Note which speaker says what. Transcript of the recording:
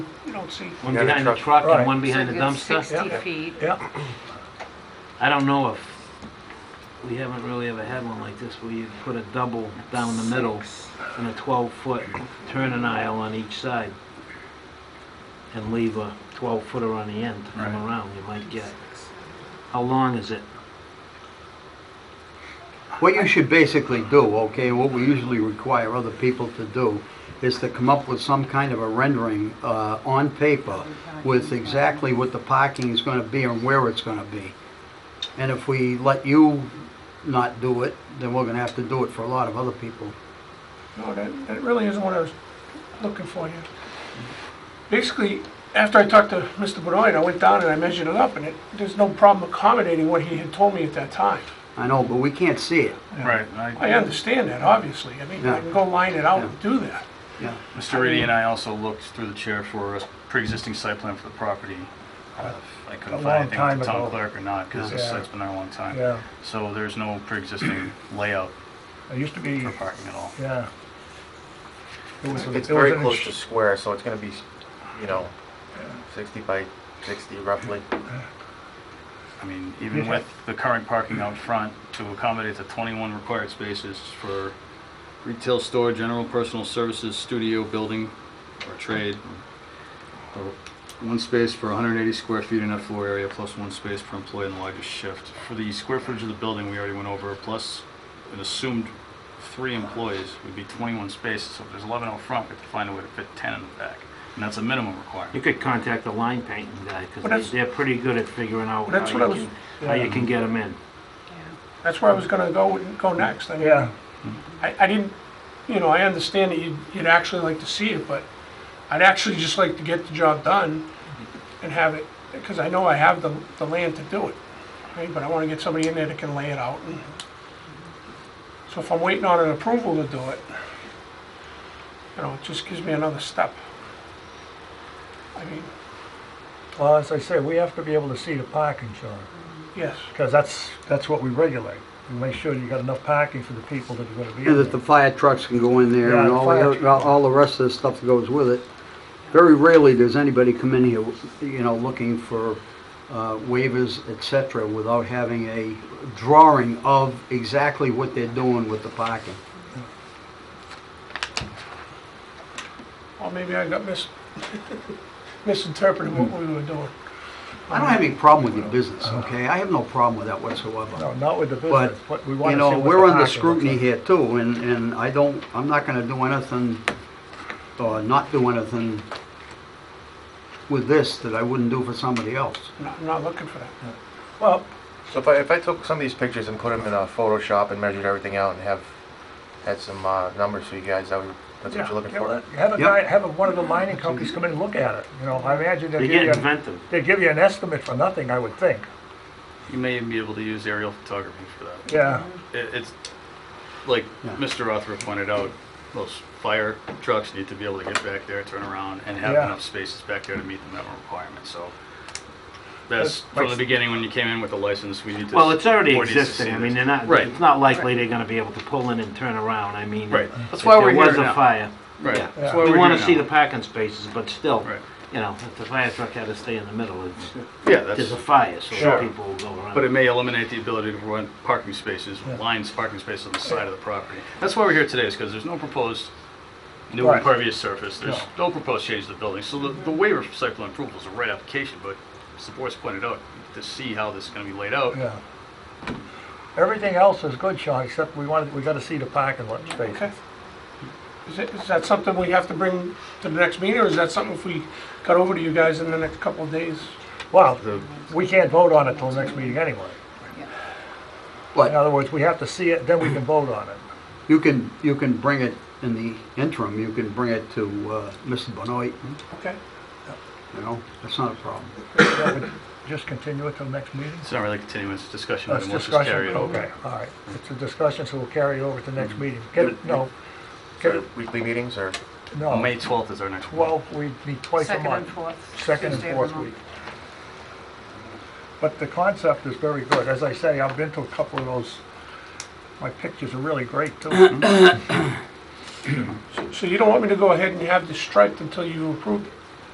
Speaker 1: You don't see,
Speaker 2: One
Speaker 3: Yeah, the
Speaker 2: behind the
Speaker 3: truck.
Speaker 2: truck and
Speaker 4: Right.
Speaker 2: one behind the
Speaker 5: So
Speaker 2: dumpster.
Speaker 5: Sixty
Speaker 4: Yeah.
Speaker 5: feet.
Speaker 4: yeah,
Speaker 2: I don't know if, we haven't really ever had one like this where you put a double down the middle and a 12-foot turning aisle on each side and leave a 12-footer on the end to come
Speaker 1: Right.
Speaker 2: around, you might get. How long is it?
Speaker 6: What you should basically do, okay, what we usually require other people to do, is to come up with some kind of a rendering uh, on paper with exactly what the parking is going to be and where it's going to be. And if we let you not do it, then we're going to have to do it for a lot of other people.
Speaker 1: no, that, that really isn't what I was looking for here. Basically, after I talked to Mr. Benoit, I went down and I measured it up, and it, there's no problem accommodating what he had told me at that time.
Speaker 6: I know, but we can't see it.
Speaker 7: Right, I-
Speaker 1: I understand that, obviously, I mean, I can go line it out and do that.
Speaker 6: Yeah.
Speaker 7: Mr. Reedy and I also looked through the chair for a pre-existing site plan for the property. Uh, I couldn't
Speaker 4: A
Speaker 7: find
Speaker 4: long
Speaker 7: anything with
Speaker 4: time
Speaker 7: the town
Speaker 4: ago.
Speaker 7: clerk or not, because the
Speaker 4: Yeah.
Speaker 7: site's been there a long time.
Speaker 4: yeah.
Speaker 7: So there's no pre-existing layout
Speaker 4: It used to be,
Speaker 7: for parking at all.
Speaker 4: yeah. It was a-
Speaker 3: It's
Speaker 4: it was
Speaker 3: very
Speaker 4: an
Speaker 3: close
Speaker 4: ins-
Speaker 3: to square, so it's gonna be, you know, sixty by sixty roughly.
Speaker 7: I mean, even with the current parking out front, to accommodate the 21 required spaces for retail store, general personal services, studio, building, or trade, or one space per 180 square feet in that floor area, plus one space per employee in the largest shift. For the square footage of the building, we already went over, plus an assumed three employees would be 21 spaces, so if there's 11 out front, we have to find a way to fit 10 in the back, and that's a minimum requirement.
Speaker 2: You could contact the line painting guy,
Speaker 1: Well, that's-
Speaker 2: because they're pretty good at figuring out
Speaker 1: Well, that's
Speaker 2: how
Speaker 1: what I
Speaker 2: you
Speaker 1: was-
Speaker 2: can, how you can get them in.
Speaker 1: That's where I was gonna go, go next, I mean.
Speaker 4: Yeah,
Speaker 1: I, I didn't, you know, I understand that you'd, you'd actually like to see it, but I'd actually just like to get the job done and have it, because I know I have the, the land to do it, right? But I want to get somebody in there that can lay it out. and- So if I'm waiting on an approval to do it, you know, it just gives me another step. I mean,
Speaker 4: well, as I say, we have to be able to see the parking, Sean,
Speaker 1: yes,
Speaker 4: because that's, that's what we regulate. We make sure you got enough parking for the people that are gonna be
Speaker 6: And
Speaker 4: in
Speaker 6: that the
Speaker 4: there.
Speaker 6: fire trucks can go in there
Speaker 4: Yeah,
Speaker 6: and
Speaker 4: the
Speaker 6: all, the
Speaker 4: fire
Speaker 6: other- all all the rest of the stuff that goes with it. Very rarely does anybody come in here, you know, looking for uh, waivers, et cetera, without having a drawing of exactly what they're doing with the parking.
Speaker 1: or maybe I got mis, misinterpreted what we were doing.
Speaker 6: I don't have any problem with your business, okay? I have no problem with that whatsoever.
Speaker 4: Uh-huh. No, not with the
Speaker 6: But,
Speaker 4: business, but we
Speaker 6: you
Speaker 4: wanna see
Speaker 6: know,
Speaker 4: what
Speaker 6: we're
Speaker 4: the
Speaker 6: under
Speaker 4: parking looks
Speaker 6: scrutiny
Speaker 4: like.
Speaker 6: here too, and, and I don't, I'm not gonna do anything, or not do anything with this that I wouldn't do for somebody else.
Speaker 1: I'm not- I'm not looking for that.
Speaker 4: Well,
Speaker 3: So if I, if I took some of these pictures and put them in a Photoshop and measured everything out and have, had some, uh, numbers for you guys, that would, that's what
Speaker 1: Yeah,
Speaker 3: you're looking
Speaker 4: you know,
Speaker 3: for?
Speaker 4: have a
Speaker 6: Yep.
Speaker 4: guy, have a- one of the mining companies come in and look at it, you know, I imagine
Speaker 2: They
Speaker 4: they'll give
Speaker 2: get
Speaker 4: you, a-
Speaker 2: inventive.
Speaker 4: they'll give you an estimate for nothing, I would think,
Speaker 7: You may be able to use aerial photography for that.
Speaker 4: yeah.
Speaker 7: It- It's, like
Speaker 6: Yeah.
Speaker 7: Mr. Rothra pointed out, those fire trucks need to be able to get back there, turn around, and have
Speaker 4: Yeah.
Speaker 7: enough spaces back there to meet the minimum requirement, so. That's
Speaker 4: That's-
Speaker 7: from the beginning, when you came in with the license, we need to.
Speaker 2: Well, it's already
Speaker 7: board needs to see
Speaker 2: existing, I mean,
Speaker 7: this.
Speaker 2: they're not,
Speaker 7: Right.
Speaker 2: it's not likely they're gonna be able to pull in and turn around, I mean.
Speaker 7: Right,
Speaker 2: If
Speaker 7: that's why we're
Speaker 2: there
Speaker 7: here
Speaker 2: was a
Speaker 7: now.
Speaker 2: fire,
Speaker 7: Right,
Speaker 2: yeah.
Speaker 7: that's
Speaker 4: Yeah.
Speaker 7: why
Speaker 2: we
Speaker 7: we're
Speaker 2: wanna
Speaker 7: here
Speaker 2: see
Speaker 7: now.
Speaker 2: the parking spaces, but still,
Speaker 7: Right,
Speaker 2: you know, if the fire truck had to stay in the middle, it's,
Speaker 7: yeah,
Speaker 2: there's
Speaker 7: that's,
Speaker 2: a fire, so
Speaker 7: Sure.
Speaker 2: people will go around.
Speaker 7: but it may eliminate the ability to run parking spaces,
Speaker 4: Yeah.
Speaker 7: lines, parking spaces on the side of the property. That's why we're here today, is because there's no proposed new
Speaker 4: Right.
Speaker 7: impervious surface, there's no proposed change to the building, so the, the waiver for site plan approval is a right application, but as the board's pointed out, to see how this is gonna be laid out,
Speaker 4: Yeah. Everything else is good, Sean, except we wanted, we gotta see the parking lot space.
Speaker 1: Okay. Is it, is that something we have to bring to the next meeting, or is that something if we got over to you guys in the next couple of days?
Speaker 4: Well, we can't vote on it till the next meeting anyway. In
Speaker 6: But
Speaker 4: other words, we have to see it, then we can vote on it.
Speaker 6: you can, you can bring it in the interim, you can bring it to, uh, Mr. Benoit,
Speaker 1: Okay.
Speaker 6: you know, that's not a problem.
Speaker 4: That would Just continue it till the next meeting?
Speaker 7: it's not really a continuous discussion,
Speaker 4: That's
Speaker 7: item, let's just carry
Speaker 4: discussion,
Speaker 7: it over. Mm-hmm.
Speaker 4: okay, all right. It's a discussion, so we'll carry it over to the next meeting. Get it, no, get it,
Speaker 3: Weekly meetings or?
Speaker 4: no,
Speaker 7: May twelfth is our next one.
Speaker 4: twelve, we meet twice a
Speaker 5: Second and
Speaker 4: month.
Speaker 5: fourth.
Speaker 4: Second and
Speaker 5: Tuesday of the
Speaker 4: fourth
Speaker 5: month.
Speaker 4: week. But the concept is very good. As I say, I've been to a couple of those, my pictures are really great too.
Speaker 1: So you don't want me to go ahead and have this striped until you approve it?